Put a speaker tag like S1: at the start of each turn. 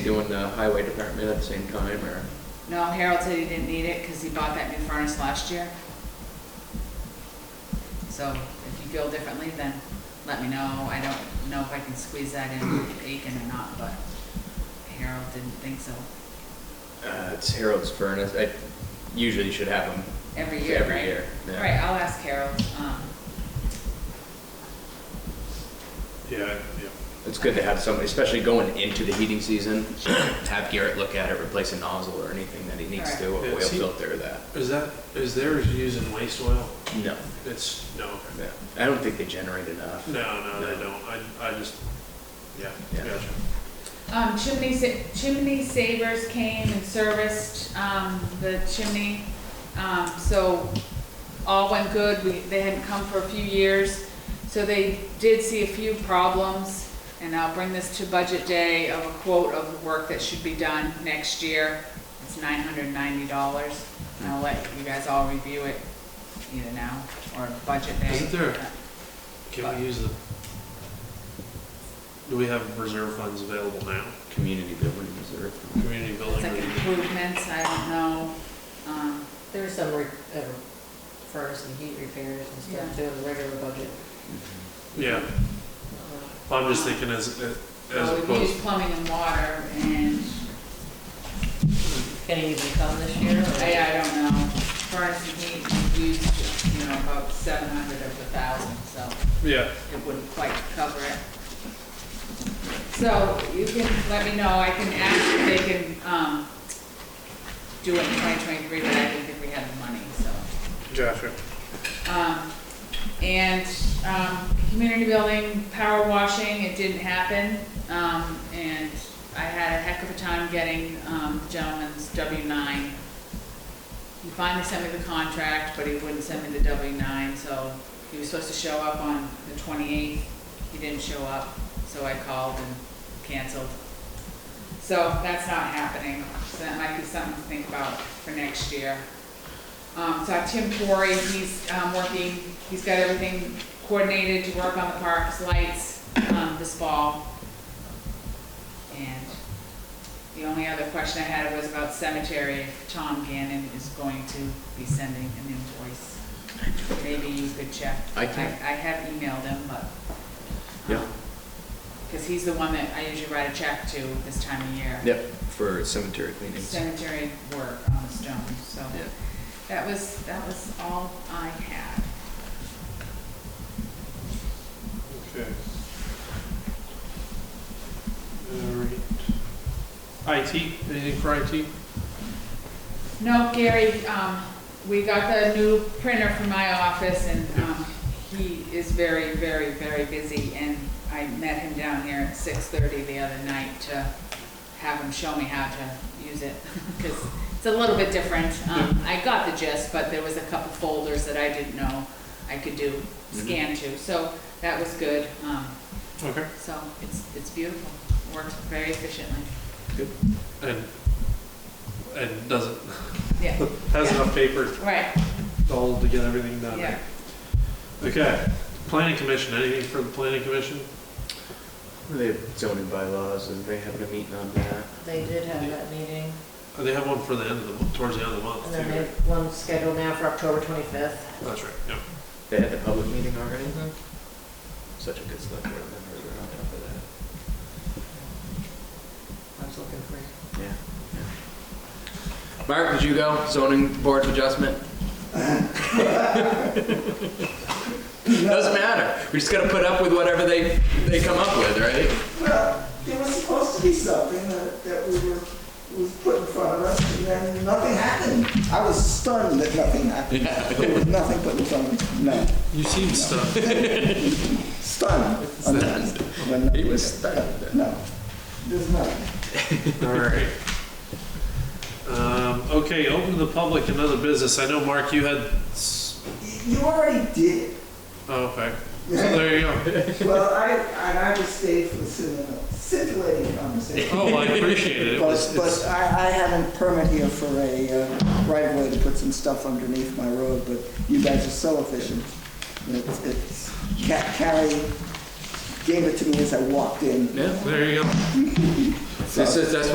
S1: doing the highway department at the same time, or?
S2: No, Harold said he didn't need it because he bought that new furnace last year. So if you feel differently, then let me know. I don't know if I can squeeze that in with Aiken or not, but Harold didn't think so.
S1: Uh, it's Harold's furnace, I usually should have them.
S2: Every year,
S1: Every
S2: right?
S1: year,
S2: All
S1: yeah.
S2: right, I'll ask Harold. um,
S3: Yeah, yeah.
S1: It's good to have somebody, especially going into the heating season, have Garrett look at it, replace a nozzle or anything that he needs to, or
S3: Alright.
S1: oil
S3: Yeah, see-
S1: filter or that.
S3: Is that, is theirs using waste oil?
S1: No,
S3: It's, no, okay.
S1: no, I don't think they generate enough.
S3: no, no, they
S1: No.
S3: don't. I, I just, yeah,
S1: Yeah.
S3: gotcha.
S2: Um, chimney, sa- chimney savers came and serviced, um, the chimney, um, so all went good, we, they hadn't come for a few years. So they did see a few problems, and I'll bring this to budget day of a quote of the work that should be done next year. It's nine hundred and ninety dollars, and I'll let you guys all review it either now or budget day.
S3: Isn't there- Can we use the, do we have reserve funds available now?
S1: Community building reserve.
S3: Community
S2: It's
S3: building?
S2: like
S3: or-
S2: improvements, I don't know, um,
S4: There are some re- uh, furnace and heat repairs and
S2: Yeah.
S4: stuff too in the regular budget.
S3: Yeah,
S4: Uh,
S3: I'm just thinking as, as
S2: So we use
S3: opposed,
S2: plumbing and water, and,
S4: Can it even come this year? or-
S2: I, I don't know, furnace and heat, we used, you know, about seven hundred of the thousand, so
S3: yeah,
S2: it wouldn't quite cover it. So you can let me know, I can ask if they can, um, do it in twenty twenty-three, but I didn't think we had the money, so.
S3: gotcha.
S2: Um, and, um, community building, power washing, it didn't happen. Um, and I had a heck of a time getting, um, the gentleman's W nine. He finally sent me the contract, but he wouldn't send me the W nine, so he was supposed to show up on the twenty-eighth. He didn't show up, so I called and canceled. So that's not happening, so that might be something to think about for next year. Um, so I have Tim Corey, he's, um, working, he's got everything coordinated to work on the parks, lights, um, this fall. And the only other question I had was about cemetery, if Tom Gannon is going to be sending an invoice. Maybe you could check.
S1: I can.
S2: I have emailed him, but. um,
S1: Yeah.
S2: Cause he's the one that I usually write a check to this time of year.
S1: Yep, for cemetery cleanings.
S2: Cemetery work on the stones, so.
S1: Yeah.
S2: That was, that was all I had.
S3: Okay. All right. IT, anything for IT?
S2: No, Gary, um, we got the new printer from my office and, um, he is very, very, very busy and I met him down here at six thirty the other night to have him show me how to use it, cause it's a little bit different. Um, I got the gist, but there was a couple folders that I didn't know I could do, scan to, so that was good. Um,
S3: Okay.
S2: so it's, it's beautiful, works very efficiently.
S3: And, and doesn't,
S2: Yeah,
S3: has enough paper
S2: right,
S3: to hold to get everything done.
S2: yeah.
S3: Okay, planning commission, anything for the planning commission?
S1: They have zoning bylaws, and they having a meeting on that.
S4: They did have that meeting,
S3: Oh, They have one for the end of the, mo- towards the end of the month.
S4: and then
S3: too,
S4: they
S3: right?
S4: have one scheduled now for October twenty-fifth.
S3: That's right, yeah.
S1: They had the public meeting already?
S4: Mhm.
S1: Such a good select board member, we're on top of
S4: I was looking for you.
S1: that. Yeah. Mark, did you go zoning board of adjustment? Doesn't matter, we just gotta put up with whatever they, they come up with, right?
S5: Well, there was supposed to be something that, that we were, was put in front of us, and then nothing happened. I was stunned that nothing happened. There was nothing put in front of me, no,
S3: You seem stuck.
S5: stunned.
S1: Stunned.
S5: When nothing
S1: He was
S5: happened.
S1: stunned.
S5: No, there's nothing.
S3: All right. Um, okay, open to the public and other business. I know, Mark, you had, s-
S5: Y- You already did
S3: oh, okay. So
S5: it.
S3: there you go.
S5: Well, I, and I just stayed for cinema, scintillating conversation.
S3: Oh, I appreciate it. It
S5: But,
S3: was,
S5: but
S3: it's,
S5: I, I have a permit here for a uh, right of way to put some stuff underneath my road, but you guys are so efficient. It's, it's, Ca- Carrie gave it to me as I walked in.
S1: Yeah.
S3: there you go.
S1: This is, that's